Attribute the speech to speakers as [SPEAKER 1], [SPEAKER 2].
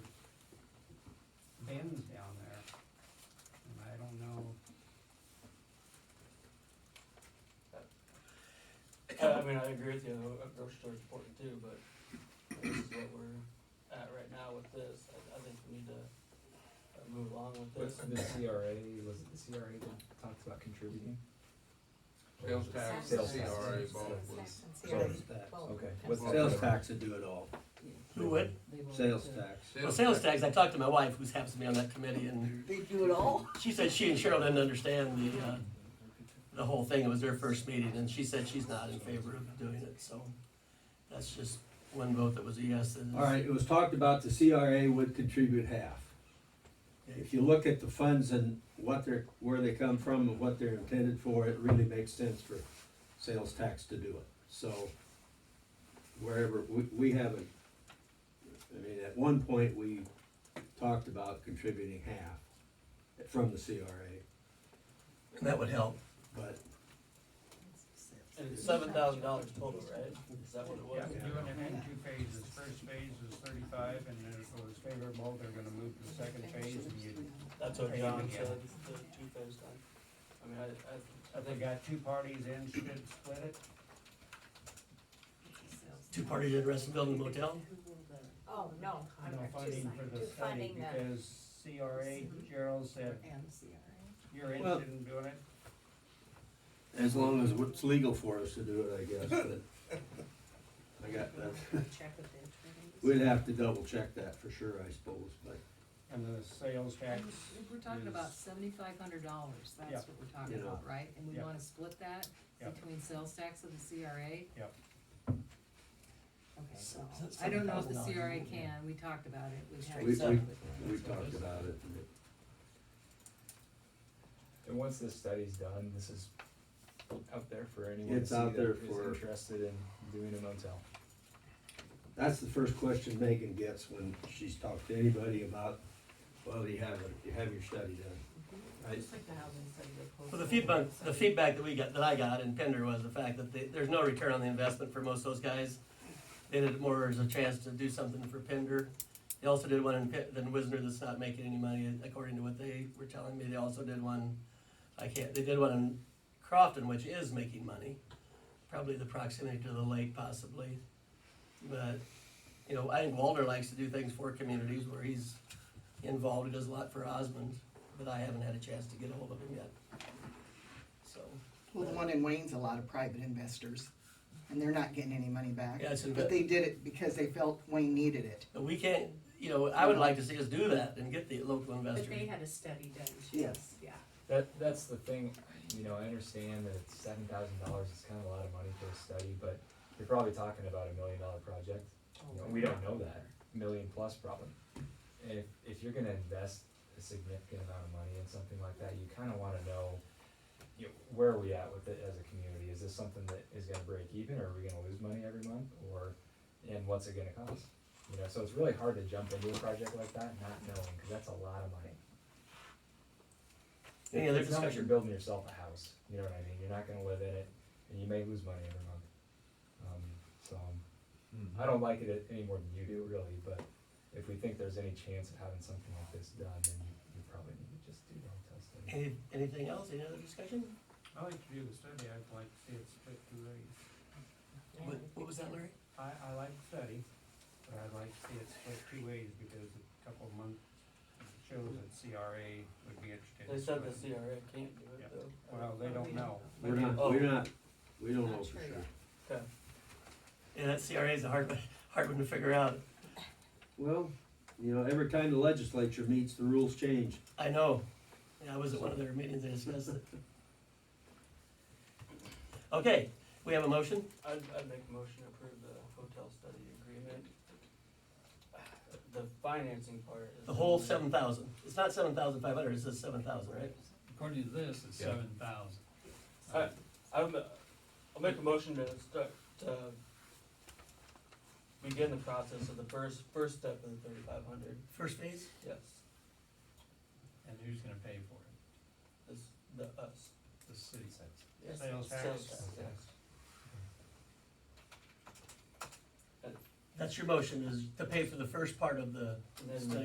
[SPEAKER 1] I mean, I agree with you, a grocery store is important too, but this is what we're at right now with this. I, I think we need to uh, move along with
[SPEAKER 2] What's
[SPEAKER 1] this.
[SPEAKER 2] the CRA, was it the CRA that talks about contributing?
[SPEAKER 3] Sales tax,
[SPEAKER 2] Sales
[SPEAKER 3] CRA,
[SPEAKER 2] tax.
[SPEAKER 3] both
[SPEAKER 4] Sales
[SPEAKER 3] was,
[SPEAKER 4] tax and
[SPEAKER 5] Sales
[SPEAKER 4] CRS.
[SPEAKER 5] tax.
[SPEAKER 4] Well,
[SPEAKER 2] Okay.
[SPEAKER 4] that's-
[SPEAKER 2] What's the-
[SPEAKER 5] Sales tax would do it all,
[SPEAKER 6] Who would?
[SPEAKER 5] sales tax.
[SPEAKER 3] sales
[SPEAKER 6] Well,
[SPEAKER 3] tax.
[SPEAKER 6] sales tax, I talked to my wife, who's happens to be on that committee, and
[SPEAKER 4] They do it all?
[SPEAKER 6] she said she and Cheryl didn't understand the, uh, the whole thing, it was their first meeting, and she said she's not in favor of doing it, so that's just one vote that was a yes. that is-
[SPEAKER 5] All right, it was talked about the CRA would contribute half. If you look at the funds and what they're, where they come from and what they're intended for, it really makes sense for sales tax to do it. So wherever, we, we haven't, I mean, at one point, we talked about contributing half from the CRA,
[SPEAKER 6] That would help.
[SPEAKER 5] but
[SPEAKER 1] And it's seven thousand dollars total, right? Is that what it
[SPEAKER 7] Yeah,
[SPEAKER 1] was?
[SPEAKER 7] we do it in two phases, first phase is thirty-five, and then if it was favorable, they're gonna move to the second phase, and you,
[SPEAKER 1] That's what John said, the two phase thing. I mean, I, I, I
[SPEAKER 7] if they
[SPEAKER 1] think,
[SPEAKER 7] got two parties in, should split it.
[SPEAKER 6] Two parties interested in building a motel?
[SPEAKER 4] Oh, no.
[SPEAKER 7] No funding for the
[SPEAKER 4] Do
[SPEAKER 7] study,
[SPEAKER 4] funding the-
[SPEAKER 7] because CRA, Gerald said, you're
[SPEAKER 5] Well-
[SPEAKER 7] interested in doing it,
[SPEAKER 5] as long as it's legal for us to do it, I guess, but I got that.
[SPEAKER 4] Check with the attorneys.
[SPEAKER 5] We'd have to double check that for sure, I suppose, but,
[SPEAKER 7] and the sales tax.
[SPEAKER 8] If we're talking about seventy-five hundred dollars,
[SPEAKER 7] Yeah.
[SPEAKER 8] that's what we're talking
[SPEAKER 5] Yeah.
[SPEAKER 8] about, right? And we
[SPEAKER 7] Yeah.
[SPEAKER 8] wanna split that
[SPEAKER 7] Yeah.
[SPEAKER 8] between sales tax and the CRA?
[SPEAKER 7] Yeah.
[SPEAKER 8] Okay, so,
[SPEAKER 6] So- so
[SPEAKER 8] I don't know if the
[SPEAKER 6] $7,000
[SPEAKER 8] CRA
[SPEAKER 6] wouldn't it?
[SPEAKER 8] can, we talked about it, we had.
[SPEAKER 5] We- we-
[SPEAKER 8] separate with
[SPEAKER 5] we
[SPEAKER 8] them.
[SPEAKER 5] talked about it. and it-
[SPEAKER 2] And once this study's done, this is out there for anyone to
[SPEAKER 5] It's
[SPEAKER 2] see
[SPEAKER 5] out
[SPEAKER 2] that
[SPEAKER 5] there
[SPEAKER 2] is
[SPEAKER 5] for-
[SPEAKER 2] interested in doing a motel.
[SPEAKER 5] That's the first question Megan gets when she's talked to anybody about, well, you have, a- you have your study done. Right?
[SPEAKER 6] Well, the feedback, the feedback that we got, that I got in Pender was the fact that they, there's no return on the investment for most of those guys. They did it more as a chance to do something for Pender. They also did one in Pit, in Wisner that's not making any money, according to what they were telling me. They also did one, I can't, they did one in Crofton, which is making money. Probably the proximity to the lake possibly. But, you know, I think Walter likes to do things for communities where he's involved. He does a lot for Osmond, but I haven't had a chance to get a hold of him yet. So,
[SPEAKER 9] Well, the one in Wayne's a lot of private investors, and they're not getting any money back.
[SPEAKER 6] Yeah, it's inve-
[SPEAKER 9] But they did it because they felt Wayne needed it.
[SPEAKER 6] but we can't, you know, I would like to see us do that and get the local
[SPEAKER 4] But they
[SPEAKER 6] investors.
[SPEAKER 4] had a study done too.
[SPEAKER 9] Yes.
[SPEAKER 4] Yeah.
[SPEAKER 2] That, that's the thing, you know, I understand that seven thousand dollars is kind of a lot of money for a study, but you're probably talking about a million dollar project. You know, we don't know that, million plus probably. If, if you're gonna invest a significant amount of money in something like that, you kinda wanna know, you know, where are we at with it as a community? Is this something that is gonna break even, or are we gonna lose money every month, or, and what's it gonna cost? You know, so it's really hard to jump into a project like that not knowing, cause that's a lot of money.
[SPEAKER 6] Any other
[SPEAKER 2] It's not like you're
[SPEAKER 6] discussion?
[SPEAKER 2] building yourself a house, you know what I mean? You're not gonna live in it, and you may lose money every month. Um, so, um, I don't like it any more than you do, really, but if we think there's any chance of having something like this done, then you, you probably need to just do the hotel study.
[SPEAKER 6] Any, anything else? Any other discussion?
[SPEAKER 7] I like to do the study, I'd like to see it split two ways.
[SPEAKER 6] What, what was that, Larry?
[SPEAKER 7] I, I like the study, but I'd like to see it split two ways, because a couple of months shows that CRA would be interested. in
[SPEAKER 1] they said
[SPEAKER 7] doing
[SPEAKER 1] the
[SPEAKER 7] it.
[SPEAKER 1] CRA can't do it though.
[SPEAKER 7] Well, they don't know.
[SPEAKER 5] We're not,
[SPEAKER 1] Oh.
[SPEAKER 5] we're not, we don't know for
[SPEAKER 8] Not
[SPEAKER 5] sure.
[SPEAKER 8] sure yet.
[SPEAKER 1] Okay.
[SPEAKER 6] Yeah, that CRA is a hard, one- hard one to figure out.
[SPEAKER 5] Well, you know, every time the legislature meets, the rules change.
[SPEAKER 6] I know. Yeah, I was at one of their meetings, they discussed it. Okay, we have a motion?
[SPEAKER 1] I'd, I'd make a motion to approve the hotel study agreement. The financing part is.
[SPEAKER 6] The whole seven thousand. It's not seven thousand five hundred, it says seven thousand, right?
[SPEAKER 10] According to this, it's
[SPEAKER 2] Yeah.
[SPEAKER 10] seven thousand.
[SPEAKER 1] I'm, uh, I'll make a motion to start, to begin the process of the first, first step of the thirty-five hundred,
[SPEAKER 6] First phase?
[SPEAKER 1] yes,
[SPEAKER 10] And who's gonna pay for it?
[SPEAKER 1] is the us.
[SPEAKER 10] The city.
[SPEAKER 1] Yes,
[SPEAKER 7] Sales tax.
[SPEAKER 1] yes.
[SPEAKER 6] That's your motion, is to pay for the first part of the
[SPEAKER 1] And then
[SPEAKER 6] Study.